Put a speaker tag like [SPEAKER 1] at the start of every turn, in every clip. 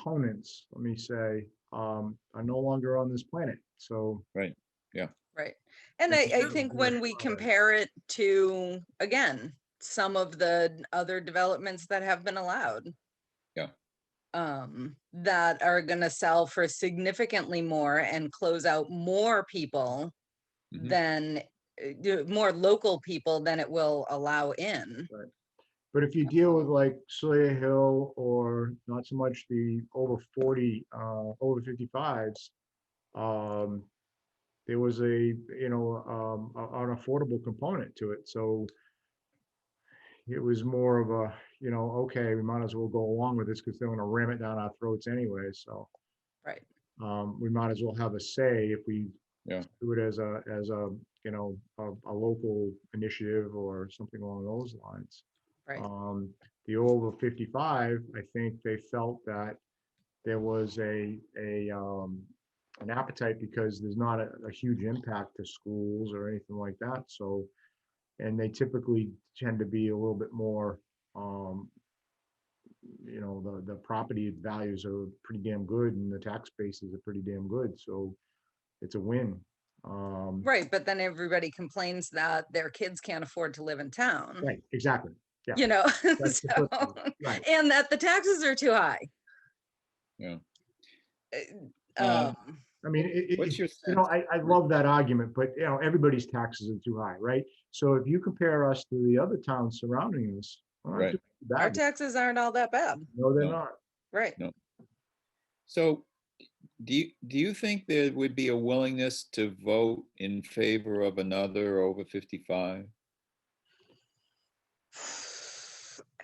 [SPEAKER 1] opponents, let me say, um, are no longer on this planet. So
[SPEAKER 2] Right. And I,
[SPEAKER 1] It's
[SPEAKER 2] I
[SPEAKER 1] true,
[SPEAKER 2] think
[SPEAKER 1] yeah,
[SPEAKER 2] when we
[SPEAKER 1] probably.
[SPEAKER 2] compare it to, again, some of the other developments that have been allowed.
[SPEAKER 3] Yeah.
[SPEAKER 2] Um, that are gonna sell for significantly more and close out more people
[SPEAKER 1] Mm-hmm.
[SPEAKER 3] Mhm.
[SPEAKER 2] than, uh, do- more local people than it will allow in.
[SPEAKER 1] But if you deal with like Sawyer Hill or not so much the over forty, uh, over fifty-fives, um, there was a, you know, um, a- an affordable component to it, so it was more of a, you know, okay, we might as well go along with this because they're gonna ram it down our throats anyway, so.
[SPEAKER 2] Right.
[SPEAKER 1] Um, we might as well have a say if we
[SPEAKER 3] Yeah.
[SPEAKER 1] do it as a, as a, you know, a, a local initiative or something along those lines.
[SPEAKER 2] Right.
[SPEAKER 1] Um, the over fifty-five, I think they felt that there was a, a, um, an appetite because there's not a, a huge impact to schools or anything like that, so. And they typically tend to be a little bit more, um, you know, the, the property values are pretty damn good and the tax bases are pretty damn good, so it's a win. Um,
[SPEAKER 2] Right, but then everybody complains that their kids can't afford to live in town,
[SPEAKER 1] right, exactly. yeah.
[SPEAKER 2] you know?
[SPEAKER 1] That's the flip
[SPEAKER 2] so-
[SPEAKER 1] side, Right.
[SPEAKER 2] And that the taxes are too high.
[SPEAKER 3] Yeah.
[SPEAKER 2] Uh,
[SPEAKER 3] Um,
[SPEAKER 2] um,
[SPEAKER 1] I mean, it, it-
[SPEAKER 3] What's
[SPEAKER 1] it-
[SPEAKER 3] your
[SPEAKER 1] you
[SPEAKER 3] sense?
[SPEAKER 1] know, I, I love that argument, but you know, everybody's taxes are too high, right? So if you compare us to the other towns surrounding us, we're not
[SPEAKER 3] Right.
[SPEAKER 1] doing too
[SPEAKER 2] Our
[SPEAKER 1] bad.
[SPEAKER 2] taxes aren't all that bad,
[SPEAKER 1] no, they're
[SPEAKER 3] No.
[SPEAKER 1] not.
[SPEAKER 2] right?
[SPEAKER 3] So do you, do you think there would be a willingness to vote in favor of another over 55?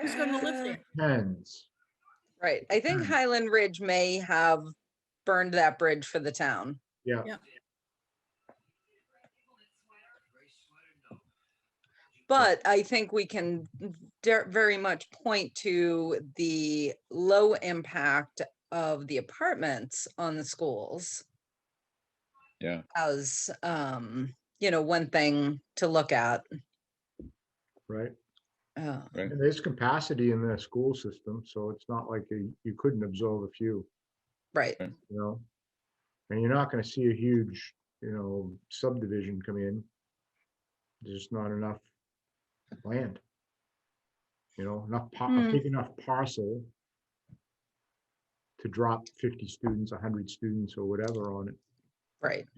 [SPEAKER 4] Who's gonna live
[SPEAKER 2] Uh,
[SPEAKER 4] there?
[SPEAKER 1] Tens.
[SPEAKER 2] Right, I think
[SPEAKER 1] Hmm.
[SPEAKER 2] Highland Ridge may have burned that bridge for the town.
[SPEAKER 1] Yeah.
[SPEAKER 4] Yeah.
[SPEAKER 2] But I think we can de- very much point to the low impact of the apartments on the schools
[SPEAKER 3] Yeah,
[SPEAKER 2] as, um, you know, one thing to look at.
[SPEAKER 1] Right.
[SPEAKER 2] Uh,
[SPEAKER 3] right.
[SPEAKER 1] And there's capacity in the school system, so it's not like you, you couldn't absorb a few,
[SPEAKER 2] Right,
[SPEAKER 1] you know? And you're not gonna see a huge, you know, subdivision come in. There's just not enough land. You know, enough, pa- a
[SPEAKER 2] Hmm.
[SPEAKER 1] big enough parcel to drop fifty students, hundred students or whatever on it,
[SPEAKER 2] right,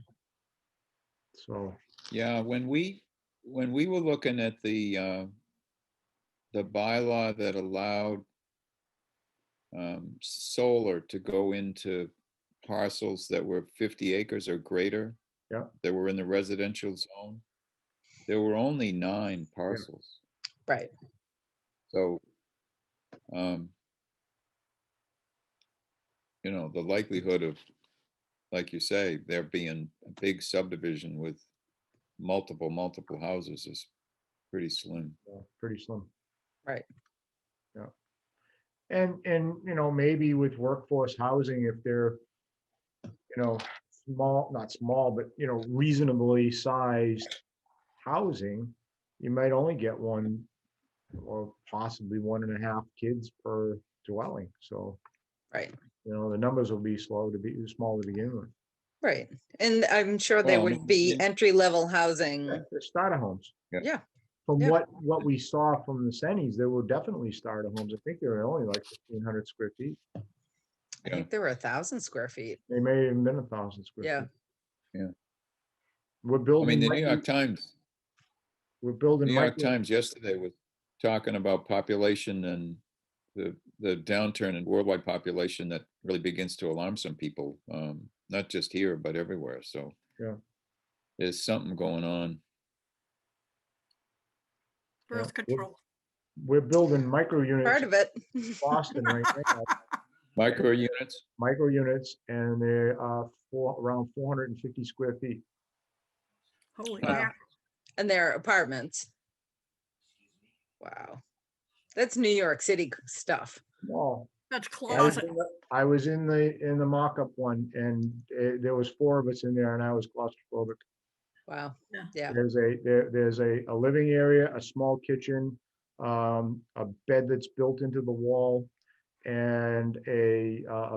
[SPEAKER 1] so.
[SPEAKER 3] Yeah, when we, when we were looking at the, uh, the bylaw that allowed um, solar to go into parcels that were 50 acres or greater.
[SPEAKER 1] Yeah.
[SPEAKER 3] That were in the residential zone. There were only nine parcels.
[SPEAKER 2] right.
[SPEAKER 3] So, um, you know, the likelihood of, like you say, there being a big subdivision with multiple, multiple houses is pretty slim.
[SPEAKER 1] Yeah, pretty slim.
[SPEAKER 2] Right.
[SPEAKER 1] Yeah. And, and, you know, maybe with workforce housing, if they're, you know, small, not small, but, you know, reasonably sized housing, you might only get one or possibly one and a half kids per dwelling. So,
[SPEAKER 2] Right,
[SPEAKER 1] you know, the numbers will be slow to be, small to begin with.
[SPEAKER 2] right. And I'm sure there
[SPEAKER 3] Well, I
[SPEAKER 2] would
[SPEAKER 3] mean,
[SPEAKER 2] be
[SPEAKER 3] yeah.
[SPEAKER 2] entry level housing.
[SPEAKER 1] Yeah, they're Starter homes.
[SPEAKER 3] Yeah.
[SPEAKER 2] Yeah.
[SPEAKER 1] From
[SPEAKER 2] Yeah.
[SPEAKER 1] what, what we saw from the Sennys, there were definitely starter homes. I think they were only like fifteen hundred square feet.
[SPEAKER 2] I
[SPEAKER 3] Yeah.
[SPEAKER 2] think there were a thousand square feet.
[SPEAKER 1] They may have even been a thousand
[SPEAKER 2] Yeah.
[SPEAKER 1] square. feet.
[SPEAKER 3] Yeah.
[SPEAKER 1] We're
[SPEAKER 3] I mean,
[SPEAKER 1] building,
[SPEAKER 3] the New
[SPEAKER 1] micro-
[SPEAKER 3] York Times,
[SPEAKER 1] we're building.
[SPEAKER 3] New York
[SPEAKER 1] micro-
[SPEAKER 3] Times yesterday was talking about population and the, the downturn in worldwide population that really begins to alarm some people, um, not just here, but everywhere, so.
[SPEAKER 1] Yeah.
[SPEAKER 3] There's something going on.
[SPEAKER 1] Yeah.
[SPEAKER 4] Birth control.
[SPEAKER 1] We're building micro
[SPEAKER 2] Part
[SPEAKER 1] units in
[SPEAKER 2] of it.
[SPEAKER 1] Boston right now,
[SPEAKER 3] Micro units?
[SPEAKER 1] micro units, and they're uh, four, around four hundred and fifty square feet.
[SPEAKER 4] Holy
[SPEAKER 2] Wow.
[SPEAKER 4] mackerel.
[SPEAKER 2] And their apartments. Wow. That's New York City stuff.
[SPEAKER 1] Wow.
[SPEAKER 4] That's
[SPEAKER 1] I was
[SPEAKER 4] closet.
[SPEAKER 1] in the- I was in the, in the mock-up one, and uh, there was four of us in there, and I was claustrophobic.
[SPEAKER 2] Wow.
[SPEAKER 1] There's a, there, there's a, a living area, a small kitchen, um, a bed that's built into the wall and a, uh, a